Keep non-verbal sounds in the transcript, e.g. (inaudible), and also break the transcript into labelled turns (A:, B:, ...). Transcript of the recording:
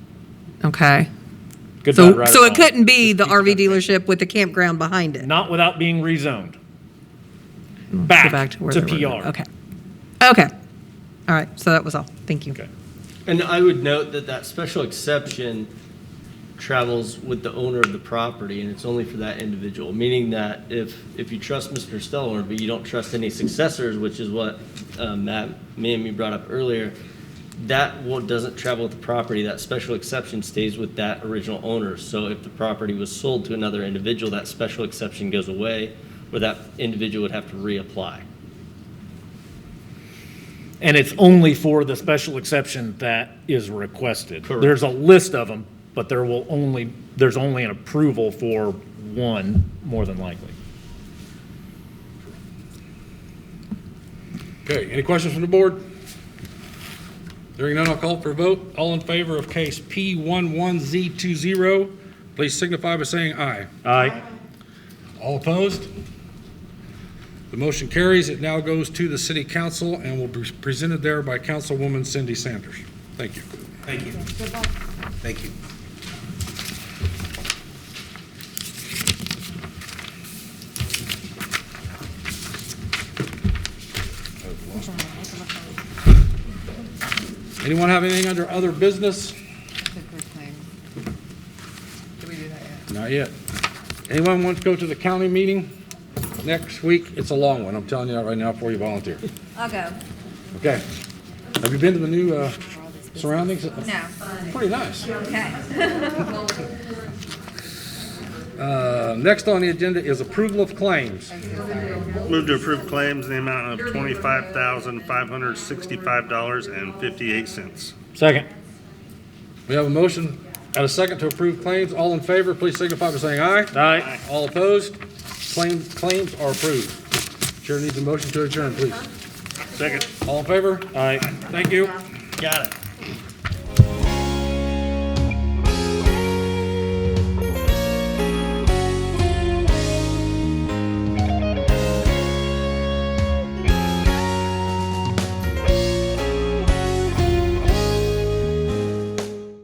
A: Okay.
B: Good, bad,
A: So,
B: right, or
A: so it
B: wrong.
A: couldn't be the
B: Just keep it
A: RV
B: that way.
A: dealership with the campground behind it?
B: Not without being rezoned.
A: Go
B: Back,
A: back to where
B: to
A: they were.
B: PR.
A: Okay. Okay. All right, so that was all. Thank you.
B: Okay.
C: And I would note that that special exception travels with the owner of the property, and it's only for that individual, meaning that if, if you trust Mr. Stellhorn, but you don't trust any successors, which is what um, Matt, me and you brought up earlier, that will, doesn't travel with the property, that special exception stays with that original owner. So if the property was sold to another individual, that special exception goes away, where that individual would have to reapply.
B: And it's only for the special exception that is requested.
C: Correct.
B: There's a list of them, but there will only, there's only an approval for one, more than likely.
D: Okay, any questions from the board? Hearing none, I'll call for a vote. All in favor of case P11Z20, please signify by saying aye.
B: Aye.
D: All opposed? The motion carries. It now goes to the city council and will be presented there by Councilwoman Cindy Sanders. Thank you.
E: Thank you. Thank you.
D: Anyone have anything under other business? Not yet. Anyone want to go to the county meeting next week? It's a long one. I'm telling you that right now before you volunteer.
F: I'll go.
D: Okay. Have you been to the new uh, surroundings?
F: No.
D: Pretty nice.
F: Okay.
D: (laughs) Uh, Next on the agenda is approval of claims.
G: Move to approve claims in the amount of twenty-five thousand, five hundred sixty-five dollars and fifty-eight cents.
B: Second.
D: We have a motion and a second to approve claims. All in favor, please signify by saying aye.
B: Aye.
D: All opposed? Claim- Claims are approved. Chair needs a motion to adjourn, please.
G: Second.
D: All in favor?
B: Aye.
D: Thank you.
C: Got it.